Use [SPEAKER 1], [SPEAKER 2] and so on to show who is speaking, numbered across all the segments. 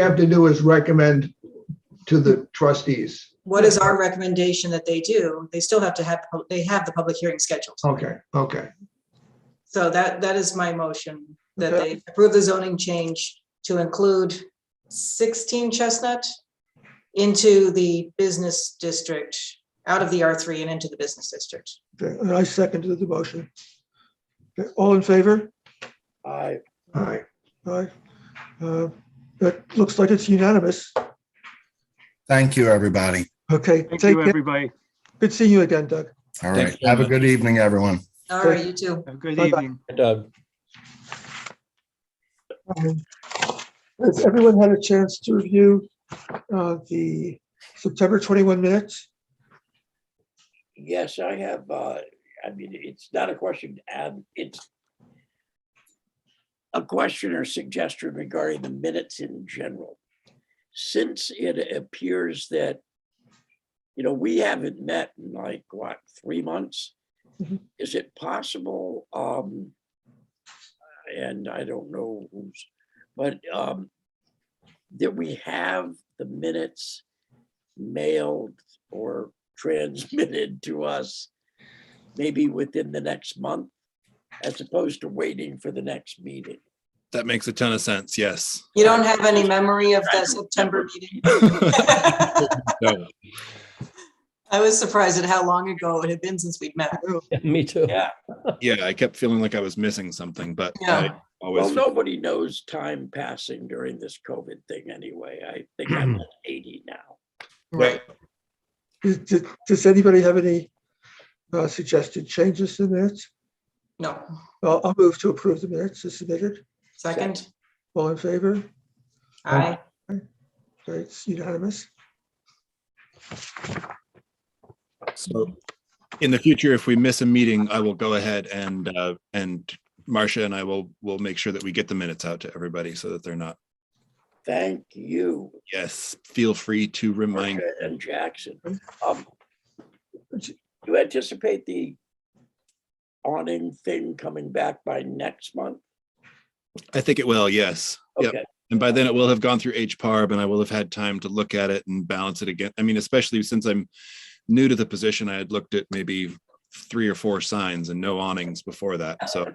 [SPEAKER 1] have to do is recommend to the trustees.
[SPEAKER 2] What is our recommendation that they do? They still have to have, they have the public hearing scheduled.
[SPEAKER 1] Okay, okay.
[SPEAKER 2] So that, that is my motion, that
[SPEAKER 1] Okay.
[SPEAKER 2] they approve the zoning change to include sixteen Chestnut into the business district, out of the R three and into the business district.
[SPEAKER 3] Okay, and I second the motion. Okay, all in favor?
[SPEAKER 4] Aye.
[SPEAKER 1] All right.
[SPEAKER 3] Aye. Uh, That looks like it's unanimous.
[SPEAKER 5] Thank you, everybody.
[SPEAKER 3] Okay,
[SPEAKER 4] Thank
[SPEAKER 3] take
[SPEAKER 4] you,
[SPEAKER 3] care.
[SPEAKER 4] everybody.
[SPEAKER 3] Good seeing you again, Doug.
[SPEAKER 5] All
[SPEAKER 6] Thank
[SPEAKER 5] right.
[SPEAKER 6] you.
[SPEAKER 5] Have a good evening, everyone.
[SPEAKER 2] All
[SPEAKER 3] Okay.
[SPEAKER 2] right, you too.
[SPEAKER 4] Have a good
[SPEAKER 3] Bye-bye.
[SPEAKER 4] evening.
[SPEAKER 6] Doug.
[SPEAKER 3] Um, Has everyone had a chance to review uh, the September 21 minutes?
[SPEAKER 7] Yes, I have, uh, I mean, it's not a question, um, it's a question or suggestion regarding the minutes in general. Since it appears that, you know, we haven't met in like, what, three months?
[SPEAKER 3] Mhm.
[SPEAKER 7] Is it possible, um, and I don't know who's, but, um, that we have the minutes mailed or transmitted to us maybe within the next month, as opposed to waiting for the next meeting.
[SPEAKER 8] That makes a ton of sense. Yes.
[SPEAKER 2] You don't have any memory of
[SPEAKER 7] I
[SPEAKER 2] the
[SPEAKER 7] don't
[SPEAKER 2] September
[SPEAKER 7] remember.
[SPEAKER 2] meeting?
[SPEAKER 8] No.
[SPEAKER 2] I was surprised at how long ago it had been since we'd met.
[SPEAKER 6] Me too.
[SPEAKER 7] Yeah,
[SPEAKER 8] Yeah, I kept feeling like I was missing something, but
[SPEAKER 2] Yeah.
[SPEAKER 8] I always.
[SPEAKER 7] well, nobody knows time passing during this COVID thing anyway. I think I'm at eighty now.
[SPEAKER 8] Right.
[SPEAKER 3] Does- Does does anybody have any uh, suggested changes to the minutes?
[SPEAKER 2] No,
[SPEAKER 3] I'll I'll move to approve the minutes as submitted.
[SPEAKER 2] second,
[SPEAKER 3] All in favor?
[SPEAKER 2] aye,
[SPEAKER 3] Okay, It's unanimous.
[SPEAKER 8] So in the future, if we miss a meeting, I will go ahead and, uh, and Marcia and I will, will make sure that we get the minutes out to everybody so that they're not.
[SPEAKER 7] Thank you,
[SPEAKER 8] Yes, feel free to remind.
[SPEAKER 7] Marcia and Jackson.
[SPEAKER 2] Mm-hmm.
[SPEAKER 7] Um, Do you anticipate the awning thing coming back by next month?
[SPEAKER 8] I think it will. Yes. Yep.
[SPEAKER 7] Okay,
[SPEAKER 8] And by then it will have gone through HPARB and I will have had time to look at it and balance it again. I mean, especially since I'm new to the position, I had looked at maybe three or four signs and no awnings before that. So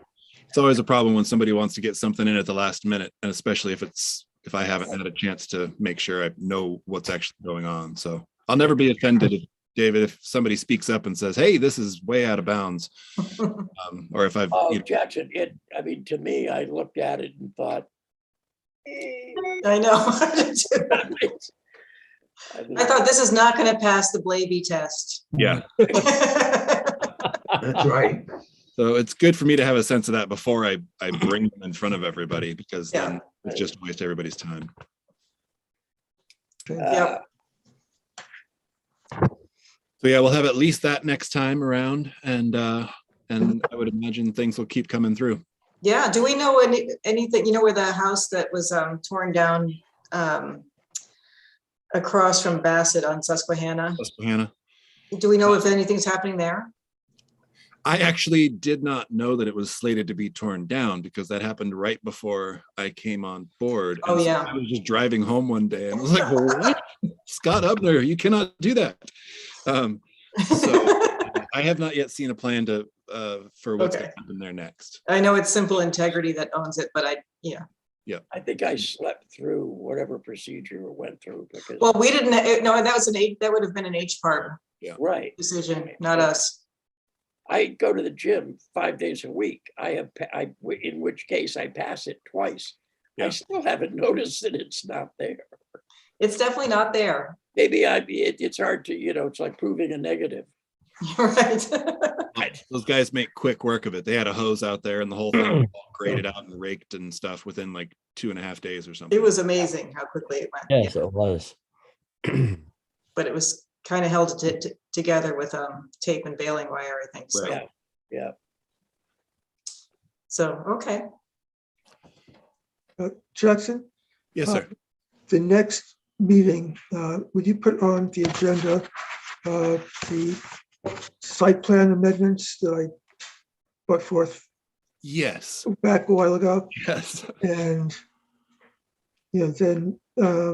[SPEAKER 8] it's always a problem when somebody wants to get something in at the last minute. And especially if it's, if I haven't had a chance to make sure I know what's actually going on. So I'll never be offended, if- David, if somebody speaks up and says, hey, this is way out of bounds. Um, Or if I've,
[SPEAKER 7] Oh,
[SPEAKER 8] you know,
[SPEAKER 7] Jackson, it, I mean, to me, I looked at it and thought, "Eh,
[SPEAKER 2] I know.
[SPEAKER 7] I mean,
[SPEAKER 2] I thought this is not gonna pass the Blaby test.
[SPEAKER 8] yeah.
[SPEAKER 1] That's right.
[SPEAKER 8] So it's good for me to have a sense of that before I, I bring them in front of everybody because
[SPEAKER 2] Yeah.
[SPEAKER 8] then it's just a waste of everybody's time.
[SPEAKER 3] Okay.
[SPEAKER 7] uh,
[SPEAKER 8] So yeah, we'll have at least that next time around and, uh, and I would imagine things will keep coming through.
[SPEAKER 2] Yeah, do we know any, anything, you know, where the house that was um torn down um across from Bassett on Susquehanna?
[SPEAKER 8] Hannah,
[SPEAKER 2] Do we know if anything's happening there?
[SPEAKER 8] I actually did not know that it was slated to be torn down because that happened right before I came on board.
[SPEAKER 2] Oh,
[SPEAKER 8] And so
[SPEAKER 2] yeah.
[SPEAKER 8] I was just driving home one day and I was like, well, what? Scott Ubner, you cannot do that. Um, so I have not yet seen a plan to, uh, for what's going
[SPEAKER 2] Okay.
[SPEAKER 8] to happen there next.
[SPEAKER 2] I know it's Simple Integrity that owns it, but I, yeah.
[SPEAKER 7] I think I slept through whatever procedure it went through because,
[SPEAKER 2] Well, we didn't, it- no, that was an H, that would have been an H part
[SPEAKER 7] right,
[SPEAKER 2] decision, not us.
[SPEAKER 7] I go to the gym five days a week. I have, pa- I, in which case I pass it twice. I
[SPEAKER 8] Yeah.
[SPEAKER 7] still haven't noticed that it's not there.
[SPEAKER 2] It's definitely not there.
[SPEAKER 7] Maybe I, it, it's hard to, you know, it's like proving a negative.
[SPEAKER 2] You're right.
[SPEAKER 8] Those guys make quick work of it. They had a hose out there and the whole thing was all graded out and raked and stuff within like two and a half days or something.
[SPEAKER 2] It was amazing how quickly it went.
[SPEAKER 6] Yes, it was.
[SPEAKER 2] But it was kind of held to- to- together with um tape and baling wire, I think, so.
[SPEAKER 8] Right.
[SPEAKER 7] Yeah.
[SPEAKER 2] So, okay.
[SPEAKER 3] Uh, Jackson?
[SPEAKER 8] Yes, sir.
[SPEAKER 3] the next meeting, uh, would you put on the agenda uh, the site plan amendments that I put forth
[SPEAKER 8] Yes,
[SPEAKER 3] back a while ago?
[SPEAKER 8] yes.
[SPEAKER 3] And, you know, then uh,